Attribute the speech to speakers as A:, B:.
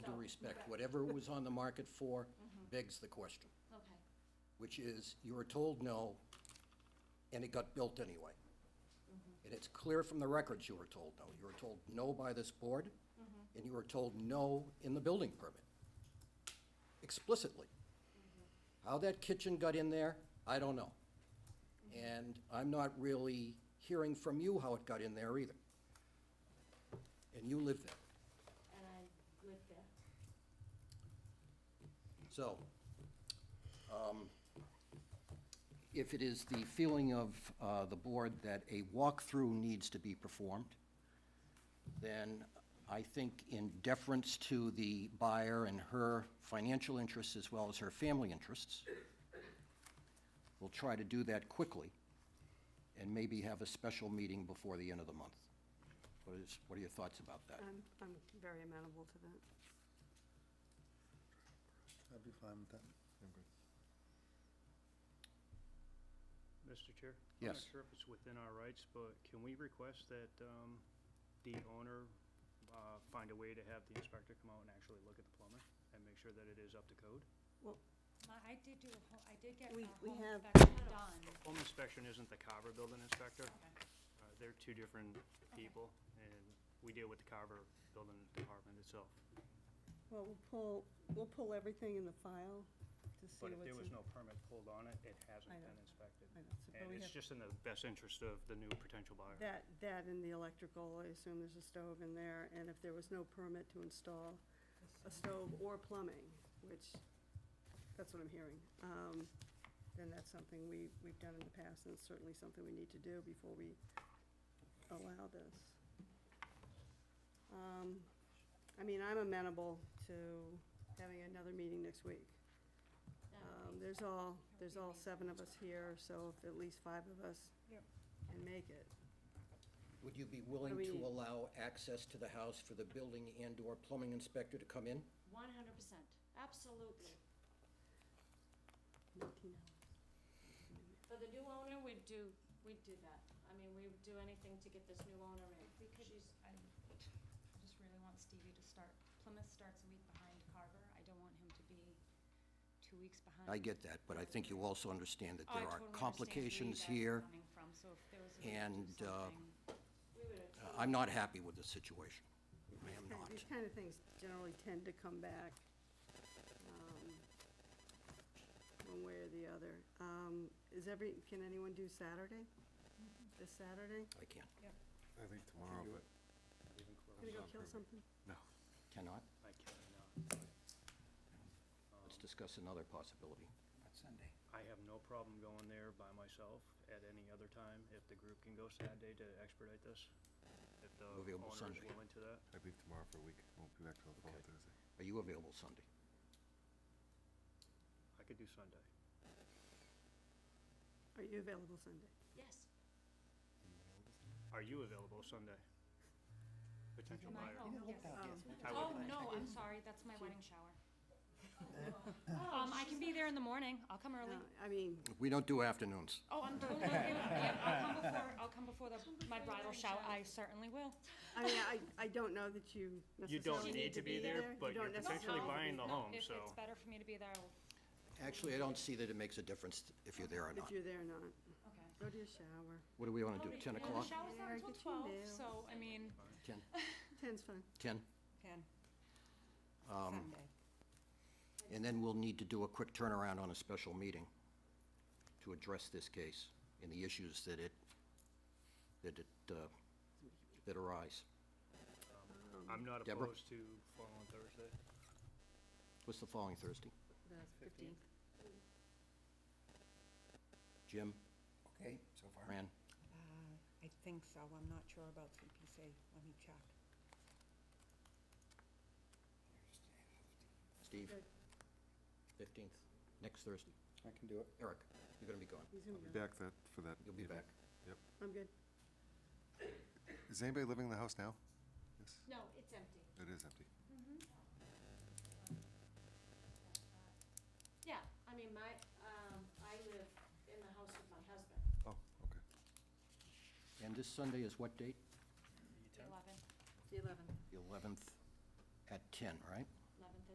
A: respect.
B: Right.
A: Whatever it was on the market for begs the question,
B: Okay,
A: which is, you were told no, and it got built anyway. And it's clear from the records you were told no. You were told no by this board, and you were told no in the building permit, explicitly. How that kitchen got in there, I don't know. And I'm not really hearing from you how it got in there either. And you live there.
B: and I live there.
A: So, um, if it is the feeling of uh, the board that a walkthrough needs to be performed, then I think in deference to the buyer and her financial interests as well as her family interests, we'll try to do that quickly and maybe have a special meeting before the end of the month. What is, what are your thoughts about that?
C: I'm, I'm very amenable to that.
D: I'd be fine with that.
E: Mr. Chair? I'm
A: Yes.
E: not sure if it's within our rights, but can we request that um, the owner uh, find a way to have the inspector come out and actually look at the plumbing and make sure that it is up to code?
F: My, I did do a home, I did get a
C: We-
F: home
C: we have-
F: inspection done.
E: Home inspection isn't the Carver building inspector.
B: Oh,
E: Uh, They're two different people, and we deal with the Carver building department itself.
C: Well, we'll pull, we'll pull everything in the file to see
E: But if
C: what's
E: there
C: in.
E: was no permit pulled on it, it hasn't
C: I
E: been
C: know.
E: inspected.
C: I know, so- but
E: And
C: we
E: it's
C: have-
E: just in the best interest of the new potential buyer.
C: That, that and the electrical, I assume there's a stove in there, and if there was no permit to install a stove or plumbing, which, that's what I'm hearing, um, then that's something we, we've done in the past, and it's certainly something we need to do before we allow this. Um, I mean, I'm amenable to having another meeting next week.
B: That
C: Um,
B: would be-
C: there's all, there's all
B: amazing.
C: seven of us here, so if at least five of us
F: Yep.
C: can make it.
A: Would you be willing
C: What do we
A: to
C: need?
A: allow access to the house for the building and/or plumbing inspector to come in?
B: One hundred percent, absolutely.
C: Nineteen hours.
B: For the new owner, we'd do, we'd do that. I mean, we would do anything to get this new owner in.
F: We could,
B: She's-
F: I I just really want Stevie to start, Plymouth starts a week behind Carver. I don't want him to be two weeks behind.
A: I get that, but I think you also understand that
F: Oh, I
A: there are
F: totally understand where you
A: complications
F: guys are
A: here.
F: coming from, so if there was a way to do
A: and, uh,
F: something-
B: We would have.
A: Uh, I'm not happy with the situation. I am not.
C: These kind of things generally tend to come back, um, one way or the other. Um, is every, can anyone do Saturday? This Saturday?
A: I can't,
D: I think tomorrow, but
E: Even close.
C: Gonna go kill
D: perfect.
C: something?
A: cannot.
E: I uh, um, cannot.
A: Let's discuss another possibility. Sunday.
E: I have no problem going there by myself at any other time if the group can go Saturday to expedite this. If the
A: We'll be able
E: owner is
A: Sunday.
E: willing to that.
D: I leave tomorrow for a week, won't be back till the following
E: Okay.
D: Thursday.
A: Are you available Sunday?
E: I could do Sunday.
C: Are you available Sunday?
B: Yes,
E: Are you available Sunday? Potential
F: My
E: buyer.
F: home, yes.
C: Um,
E: I
F: Oh,
E: would-
F: no, I'm sorry, that's my wedding shower.
B: Oh,
F: Um, I can be there in the morning. I'll come early.
C: Um, no, I mean,
A: We don't do afternoons.
F: Oh, I'm totally, yeah, I'll come before, I'll come before the,
B: before
F: my
B: your
F: bridal
B: wedding
F: shower.
B: shower.
F: I certainly will.
C: I mean, I, I don't know that you
E: You
C: necessarily
E: don't need to be there,
C: You
E: but you're
C: don't necessarily
E: potentially
C: need to
E: buying the
C: be-
E: home,
F: If it's
E: so
F: better for me to be there, I'll,
A: Actually, I don't see that it makes a difference if you're there or
C: If
A: not.
C: you're there or not.
F: okay.
C: Go to your shower.
A: What do we want to do, 10
B: Yeah,
F: Well,
A: o'clock?
F: the shower's not
C: Yeah,
F: until
C: get your
F: twelve,
C: nails.
F: so, I mean,
A: 10,
C: Ten's fine.
A: 10?
F: can,
A: Um,
F: Sunday.
A: And then we'll need to do a quick turnaround on a special meeting to address this case and the issues that it, that it, uh, that arise.
E: I'm not
A: Deborah?
E: opposed to following Thursday.
A: What's the following Thursday?
C: That's fifteenth.
A: Jim,
G: Okay, so far.
A: Fran?
H: Uh, I think so, I'm not sure about CPC, let me check.
A: Steve?
C: Good.
A: Fifteenth, next Thursday.
G: I can do it.
A: Eric, you're gonna be gone.
C: He's gonna
D: I'll be
C: go.
D: back that, for that.
A: You'll be
D: meeting.
A: back.
C: I'm good.
D: Is anybody living in the house now? Yes,
B: no, it's empty.
D: it is empty.
B: Yeah, I mean, my, um, I live in the house with my husband.
D: Oh, okay.
A: And this Sunday is what date?
F: eleven.
C: The eleventh.
A: The eleventh at ten, right?